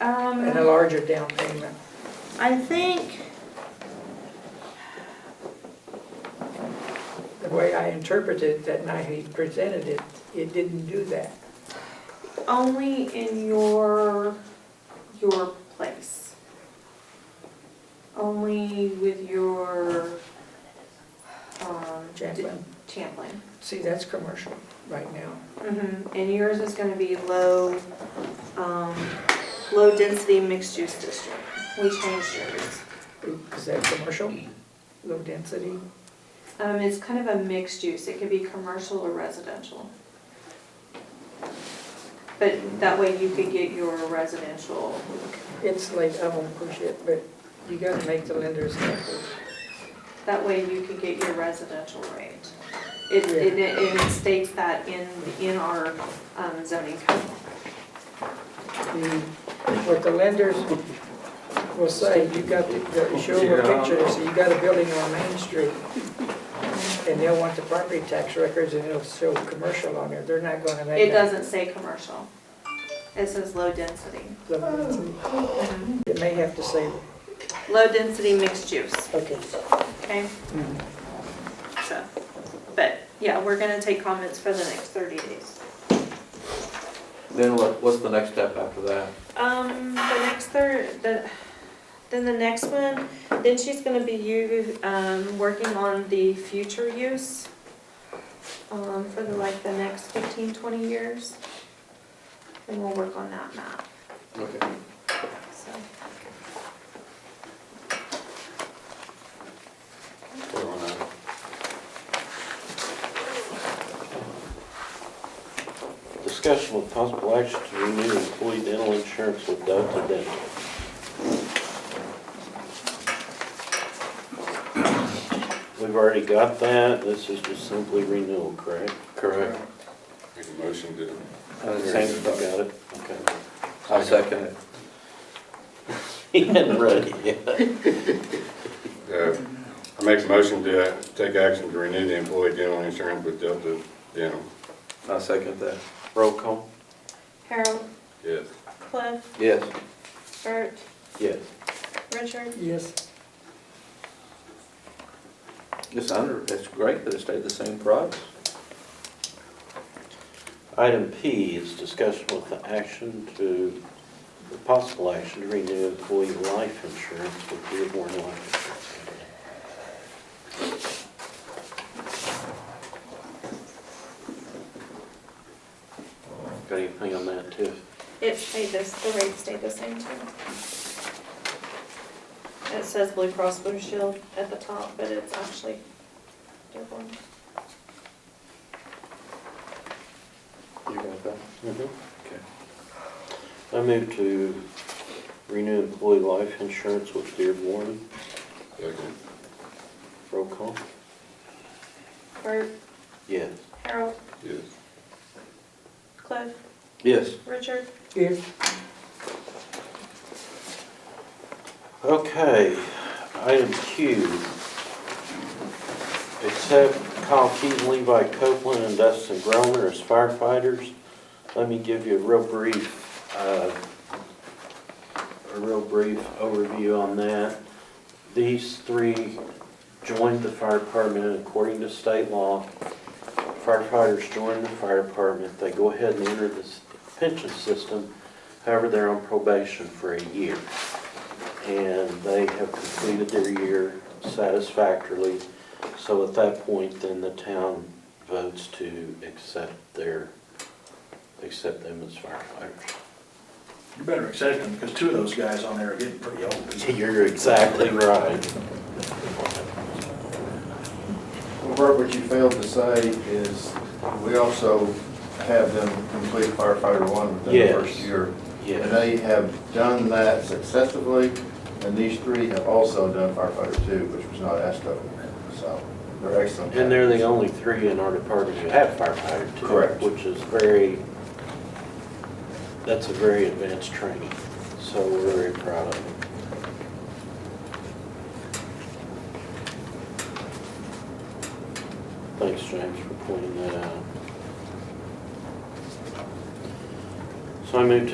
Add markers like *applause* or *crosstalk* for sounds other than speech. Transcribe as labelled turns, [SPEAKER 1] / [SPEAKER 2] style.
[SPEAKER 1] and a
[SPEAKER 2] Um,
[SPEAKER 1] larger down payment.
[SPEAKER 2] I think,
[SPEAKER 1] The way I interpreted that night he presented it, it didn't do that.
[SPEAKER 2] only in your, your place. Only with your, um.
[SPEAKER 1] Champlin.
[SPEAKER 2] Champlain.
[SPEAKER 1] See, that's commercial right now.
[SPEAKER 2] Mm-hmm, and yours is gonna be low, um, low density mixed use district. We changed yours.
[SPEAKER 1] Is that commercial? Low density?
[SPEAKER 2] Um, it's kind of a mixed use, it could be commercial or residential. But that way you could get your residential.
[SPEAKER 1] It's late, I won't push it, but you gotta make the lenders happy.
[SPEAKER 2] That way you could get your residential rate. It, it, it states that in, in our um, zoning code.
[SPEAKER 1] The- What the lenders will say, you got to the- show them a picture, they say you got a building on Main Street. And they'll want the property tax records and it'll show commercial on there. They're not gonna make.
[SPEAKER 2] It doesn't say commercial. It says low density.
[SPEAKER 1] doesn't. It may have to say,
[SPEAKER 2] Low density mixed use,
[SPEAKER 1] okay.
[SPEAKER 2] okay? So, but, yeah, we're gonna take comments for the next thirty days.
[SPEAKER 3] Then what, what's the next step after that?
[SPEAKER 2] Um, the next third, the, then the next one, then she's gonna be you, um, working on the future use. Um, for the, like, the next fifteen, twenty years. And we'll work on that map,
[SPEAKER 3] Okay.
[SPEAKER 2] so.
[SPEAKER 3] We're on that.
[SPEAKER 4] Discussion with possible action to renew employee dental insurance with Delta Dental. We've already got that, this is just simply renewal, correct?
[SPEAKER 3] Correct.
[SPEAKER 5] Make a motion to.
[SPEAKER 3] And the
[SPEAKER 4] Same,
[SPEAKER 3] Uh, same,
[SPEAKER 4] you got it, okay. *laughs*
[SPEAKER 3] I second it.
[SPEAKER 4] He hadn't read it yet.
[SPEAKER 5] Uh, I make a motion to uh, take action to renew the employee dental insurance with Delta Dental.
[SPEAKER 3] I second that.
[SPEAKER 4] Roll call?
[SPEAKER 2] Harold,
[SPEAKER 5] Yes.
[SPEAKER 2] Cliff,
[SPEAKER 3] Yes.
[SPEAKER 2] Bert,
[SPEAKER 4] Yes.
[SPEAKER 2] Richard,
[SPEAKER 1] Yes.
[SPEAKER 3] It's under, it's great that it stayed the same price.
[SPEAKER 4] Item P is discussion with the action to, the possible action to renew employee life insurance with Dearborn Life Insurance. Company. Got anything on that, too?
[SPEAKER 2] it stayed this, the rate stayed the same too. It says Blue Cross Blue Shield at the top, but it's actually Dearborn.
[SPEAKER 3] You got that? Okay.
[SPEAKER 4] I move to renew employee life insurance with Dearborn.
[SPEAKER 5] Second.
[SPEAKER 4] Roll call?
[SPEAKER 2] Bert,
[SPEAKER 4] Yes.
[SPEAKER 2] Harold,
[SPEAKER 5] Yes.
[SPEAKER 2] Cliff,
[SPEAKER 3] Yes.
[SPEAKER 2] Richard,
[SPEAKER 1] Yes.
[SPEAKER 4] Okay, item Q. Accept Kyle Keaton, Levi Copeland, and Dustin Groner as firefighters. Let me give you a real brief, uh, a real brief overview on that. These three joined the fire department and according to state law. Firefighters join the fire department, they go ahead and enter the pension system, however, they're on probation for a year and they have completed their year satisfactorily. So at that point, then the town votes to accept their, accept them as firefighters.
[SPEAKER 6] You better accept them, because two of those guys on there are getting pretty old.
[SPEAKER 4] You're exactly right.
[SPEAKER 7] Well, Bert, what you failed to say is, we also have them complete firefighter one within the
[SPEAKER 4] Yes.
[SPEAKER 7] first year. And
[SPEAKER 4] Yeah,
[SPEAKER 7] they have done that successfully, and these three have also done firefighter two, which was not asked of them. So they're excellent.
[SPEAKER 4] and they're the only three in our department who have firefighter too.
[SPEAKER 7] Correct.
[SPEAKER 4] Which is very, that's a very advanced training, so we're very proud of them. Thanks, James, for pointing that out. So I move to